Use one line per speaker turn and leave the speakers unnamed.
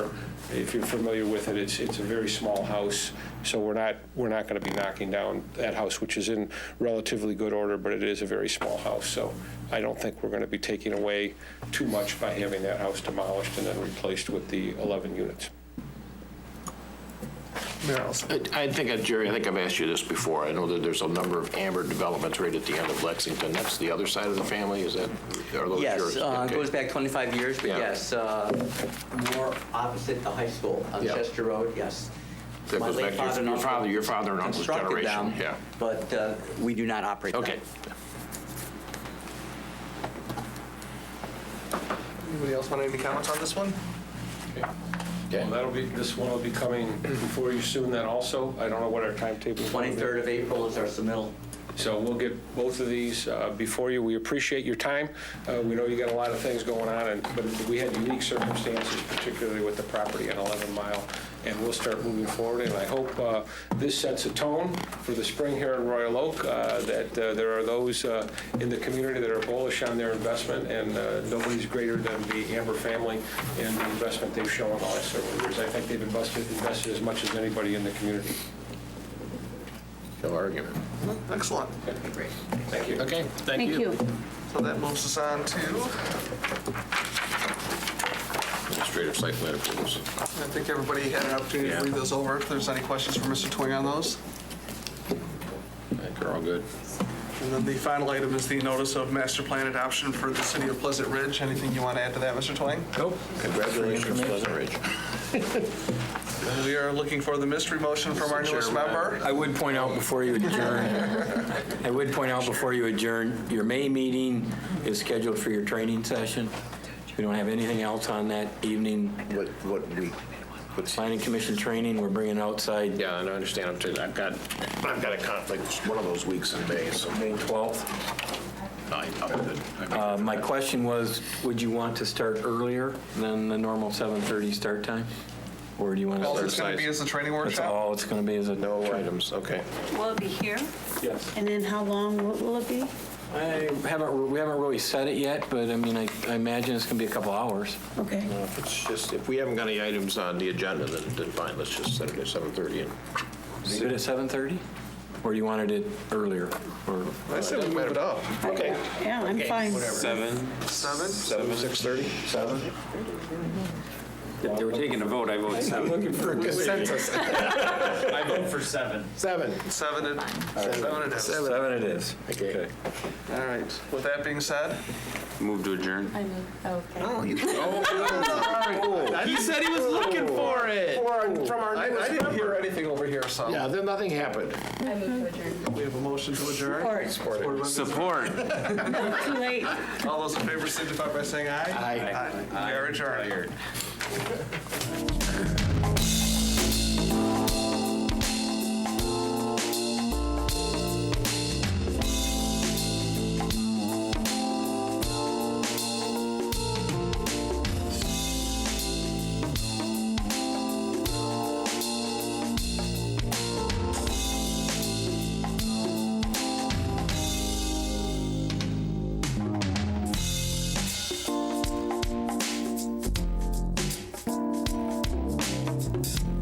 If you're familiar with it, it's, it's a very small house, so we're not, we're not going to be knocking down that house, which is in relatively good order, but it is a very small house, so I don't think we're going to be taking away too much by having that house demolished and then replaced with the 11 units.
I I think, uh, Jerry, I think I've asked you this before. I know that there's a number of Amber developments right at the end of Lexington. That's the other side of the family, is that, are those yours?
Yes, uh, it
Okay.
goes back 25 years, but
Yeah.
yes, uh, more opposite the high school on
Yeah.
Chester Road, yes.
That
My
goes
late
back to your-
and
your
uncle
father- your father and uncle's
constructed
generation,
them,
yeah.
But uh, we do not operate them.
Okay.
Anybody else want any comments on this one?
Okay.
Well, that'll be, this one will be coming before you soon then also. I don't know what our timetable is.
23rd of April is our submittal.
So we'll get both of these uh, before you. We appreciate your time. Uh, We know you got a lot of things going on, and but we had unique circumstances, particularly with the property on 11 Mile, and we'll start moving forward. And I hope uh, this sets a tone for the spring here in Royal Oak, uh, that uh, there are those uh, in the community that are bullish on their investment, and uh, nobody's greater than the Amber family and the investment they've shown the last several years. I think they've invested invested as much as anybody in the community.
No argument.
Excellent.
Thank you.
Okay, thank
Thank
you.
you.
So that moves us on to,
Administrative site plan approvals.
I think everybody had an opportunity to
Yeah.
read those over. If there's any questions for Mr. Twing on those.
I think they're all good.
And then the final item is the notice of master plan adoption for the city of Pleasant Ridge. Anything you want to add to that, Mr. Twing?
Nope. Congratulations, Pleasant Ridge.
And We are looking for the mystery motion from our newest member.
I would point out before you adjourn, I would point out before you adjourn, your May meeting is scheduled for your training session. We don't have anything else on that evening.
What, what week? What's-
Planning Commission training, we're bringing outside
Yeah, and I understand, I'm t- I've got, I've got a conflict, It's one of those weeks in May, so
May 12th.
I- I'm good.
Uh, My question was, would you want to start earlier than the normal 7:30 start time? Or do you want to
All
start?
it's going to be is the training
That's
workshop.
all it's going to be is a.
No items, okay.
Will it be here?
Yes.
And then how long will- will it be?
I haven't, we haven't really said it yet, but I mean, I I imagine it's going to be a couple hours.
Okay.
Well, If it's just, if we haven't got any items on the agenda, then, then fine, let's just set it at 7:30 and
Leave it at 7:30? Or you wanted it earlier? Or
I said we move it up.
Okay.
Yeah, I'm fine.
Seven,
Seven?
Seven, six thirty?
7?
if they were taking a vote, I vote seven.
Consensus.
I vote for seven.
Seven.
Seven it, seven it is.
Seven it is.
Okay.
All right. With that being said,
Move to adjourn.
I mean, okay.
He said he was looking for it.
I I didn't hear anything over here, so.
Yeah, then nothing happened.
We have a motion to adjourn.
Or
Board members,
Support.
too late.
All those in favor signify by saying aye.
Aye.
We are adjourned.